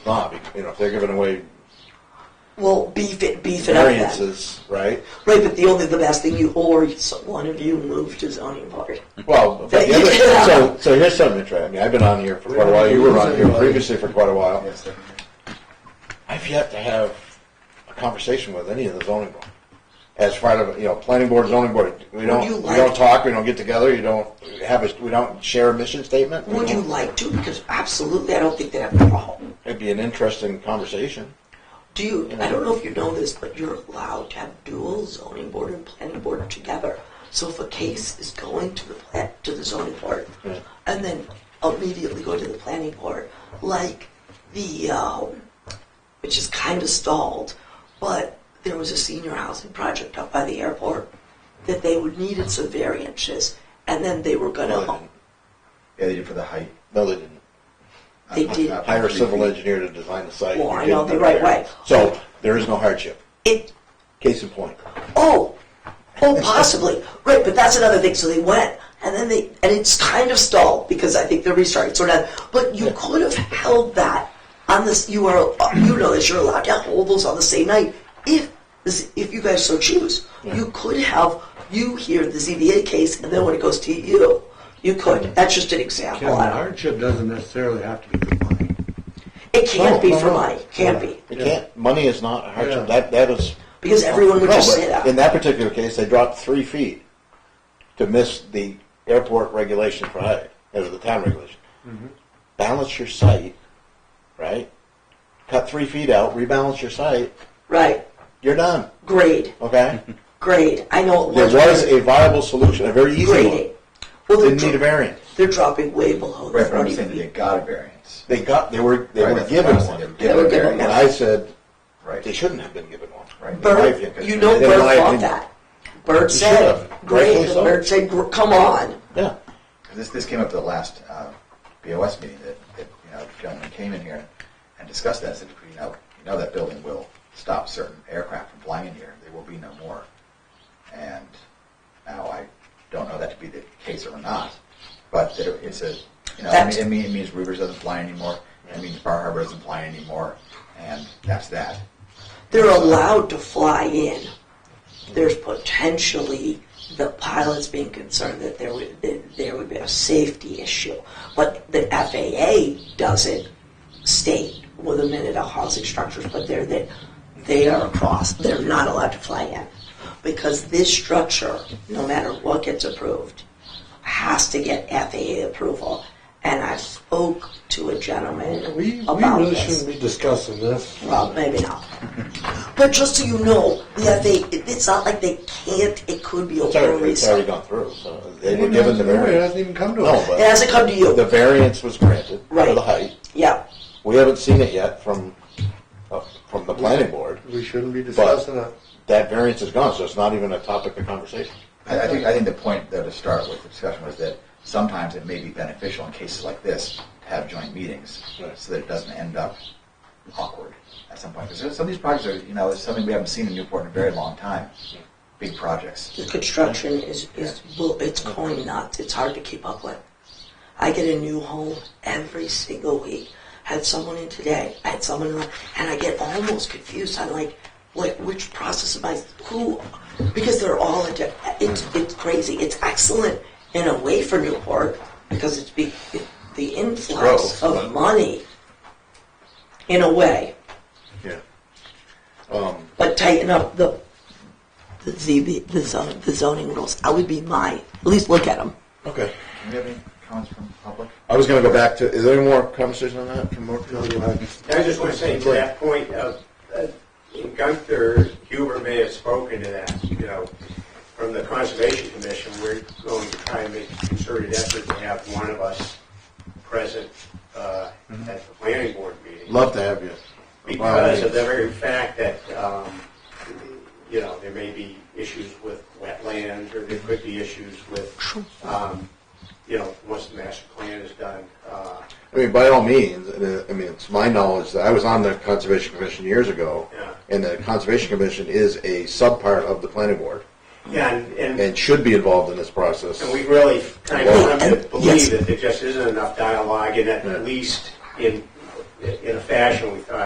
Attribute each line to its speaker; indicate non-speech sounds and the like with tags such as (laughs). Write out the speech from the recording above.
Speaker 1: not, you know, if they're giving away
Speaker 2: Well, beef it, beef it up. then.
Speaker 1: variances, right?
Speaker 2: Right, but the only, the last thing you, or so- one of you moved to zoning board.
Speaker 1: Well, but the other, so, so here's something interesting. I mean, I've been on here for quite a while. You were on here previously for quite a while.
Speaker 3: Yes, sir.
Speaker 1: I've yet to have a conversation with any of the zoning board. As far as, you know, planning board, zoning board, we don't,
Speaker 2: you
Speaker 1: we don't
Speaker 2: like-
Speaker 1: talk, we don't get together, you don't have a, we don't share a mission statement. we
Speaker 2: Would you
Speaker 1: don't-
Speaker 2: like to? Because absolutely, I don't think they have a problem.
Speaker 1: It'd be an interesting conversation.
Speaker 2: Do you, I don't know if you know this, but you're allowed to have dual zoning board and planning board together. So if a case is going to the pla- to the zoning board,
Speaker 1: Yeah.
Speaker 2: and then immediately go to the planning board, like the, um, which is kind of stalled, but there was a senior housing project up by the airport that they would needed some variances, and then they were
Speaker 1: No, they didn't.
Speaker 2: gonna,
Speaker 3: Yeah, they did for the height. Uh,
Speaker 1: No, they didn't.
Speaker 2: they
Speaker 3: Not-
Speaker 2: did.
Speaker 3: not
Speaker 1: Hire a
Speaker 3: three
Speaker 1: civil
Speaker 3: feet.
Speaker 1: engineer to design the site.
Speaker 2: Well,
Speaker 1: You
Speaker 2: I
Speaker 1: didn't
Speaker 2: know, the
Speaker 1: have
Speaker 2: right
Speaker 1: variance.
Speaker 2: way.
Speaker 1: So, there is no hardship.
Speaker 2: It
Speaker 1: Case in point.
Speaker 2: Oh, oh, possibly. Right, but that's another thing. So they went, and then they, and it's kind of stalled because I think they're restarting. So now, but you could have held that on this. You are, you know, that you're allowed to hold those on the same night if, if you guys so choose. You could have you hear the ZBA case, and then when it goes to you, you could. That's just an example.
Speaker 4: Kevin,
Speaker 2: I don't-
Speaker 4: hardship doesn't necessarily have to be good money.
Speaker 2: It can't
Speaker 1: No,
Speaker 2: be
Speaker 1: no,
Speaker 2: for
Speaker 1: no.
Speaker 2: money. Can't be
Speaker 1: You can't, money is not a hardship.
Speaker 4: Yeah.
Speaker 1: That, that is.
Speaker 2: because everyone would
Speaker 1: No,
Speaker 2: just
Speaker 1: but
Speaker 2: say that.
Speaker 1: In that particular case, they dropped three feet to miss the airport regulation for height, or the town regulation.
Speaker 3: Mm-hmm.
Speaker 1: Balance your site, right? Cut three feet out, rebalance your site,
Speaker 2: right.
Speaker 1: you're done,
Speaker 2: Grade.
Speaker 3: (laughs)
Speaker 1: okay?
Speaker 2: Grade. I know it
Speaker 1: There
Speaker 2: was.
Speaker 1: was a viable solution, a very easy one.
Speaker 2: grading. Well, they're
Speaker 1: Didn't need a
Speaker 2: dro-
Speaker 1: variance.
Speaker 2: They're dropping way below the
Speaker 3: Right, but I'm
Speaker 2: 40
Speaker 3: saying that they
Speaker 2: feet.
Speaker 3: got a variance.
Speaker 1: They got, they were, they
Speaker 3: Right,
Speaker 1: were
Speaker 3: that's
Speaker 1: given
Speaker 3: what I'm saying,
Speaker 1: one.
Speaker 3: They were given
Speaker 1: And
Speaker 3: one.
Speaker 1: I said, they
Speaker 3: Right.
Speaker 1: shouldn't have been given one.
Speaker 3: Right.
Speaker 1: In my opinion.
Speaker 2: Bird, you know
Speaker 1: In my
Speaker 2: Bird fought
Speaker 1: opinion.
Speaker 2: that. Bird
Speaker 1: You
Speaker 2: said,
Speaker 1: should've.
Speaker 2: great,
Speaker 1: Rightfully
Speaker 2: and
Speaker 1: so.
Speaker 2: Bird said, gr- come on.
Speaker 1: Yeah.
Speaker 3: This, this came up at the last uh, BOS meeting that, that, you know, the gentleman came in here and discussed that, said, you know, you know that building will stop certain aircraft from flying in here, there will be no more. And now I don't know that to be the case or not, but that it- it's a, you know, I mean, it mean- it means Rivers doesn't fly anymore, it means Bar Harbor doesn't fly anymore, and that's that.
Speaker 2: They're allowed to fly in. There's potentially the pilots being concerned that there would, that there would be a safety issue. But the FAA doesn't state with a minute of housing structures, but they're, they, they are across, they're not allowed to fly in. Because this structure, no matter what gets approved, has to get FAA approval. And I spoke to a gentleman about
Speaker 4: We,
Speaker 2: this.
Speaker 4: we really shouldn't be discussing this.
Speaker 2: Well, maybe not. But just so you know, yeah, they, it's not like they can't, it could be
Speaker 1: It's
Speaker 2: open
Speaker 1: already, it's already
Speaker 2: reason.
Speaker 1: gone through, so they were given the
Speaker 4: It
Speaker 1: variance.
Speaker 4: hasn't even come to
Speaker 1: No,
Speaker 4: us.
Speaker 2: It
Speaker 1: but
Speaker 2: hasn't come to
Speaker 1: the
Speaker 2: you.
Speaker 1: variance was granted for
Speaker 2: Right.
Speaker 1: the height.
Speaker 2: Yeah,
Speaker 1: We haven't seen it yet from, uh, from the planning board.
Speaker 4: We shouldn't be discussing it.
Speaker 1: That variance is gone, so it's not even a topic of conversation.
Speaker 3: I, I think I think the point though to start with the discussion was that sometimes it may be beneficial in cases like this to have joint meetings
Speaker 1: Right.
Speaker 3: so that it doesn't end up awkward at some point. Because some of these projects are you know it's something we haven't seen in Newport in a very long time. Big projects.
Speaker 2: the construction is, is, well, it's going nuts, it's hard to keep up with. I get a new home every single week. Had someone in today, I had someone, in- and I get almost confused on like, like which process am I, who, because they're all, into- it's, it's crazy. It's excellent in a way for Newport because it's be, it, the influx
Speaker 1: Growth,
Speaker 2: of
Speaker 1: but-
Speaker 2: money in a way,
Speaker 1: Yeah.
Speaker 2: but tighten up the, the ZB, the zoning, the zoning rules. That would be my, at least look at them.
Speaker 1: Okay.
Speaker 3: Do we have any comments from the public?
Speaker 1: I was gonna go back to, is there any more conversation on that from more?
Speaker 4: No, you haven't.
Speaker 5: I just want to say to that point, uh, uh, Gunther Huber may have spoken to that, you know, from the Conservation Commission, we're going to try and make a concerted effort to have one of us present uh,
Speaker 4: Mm-hmm.
Speaker 5: at the planning board meeting.
Speaker 1: Love to have you.
Speaker 5: Because of the very fact that, um, you know, there may be issues with wetlands, or there could be issues with, um, you know, once the master plan is done, uh,
Speaker 1: I mean, by all means, and, uh, I mean, it's my knowledge that I was on the Conservation Commission years ago,
Speaker 5: Yeah.
Speaker 1: and the Conservation Commission is a subpart of the planning board
Speaker 5: yeah, and- and
Speaker 1: and should be involved in this process.
Speaker 5: And we really kind of come
Speaker 2: Yes.
Speaker 5: to believe that there just isn't enough dialogue, and
Speaker 1: Yeah.
Speaker 5: at least in in a fashion we thought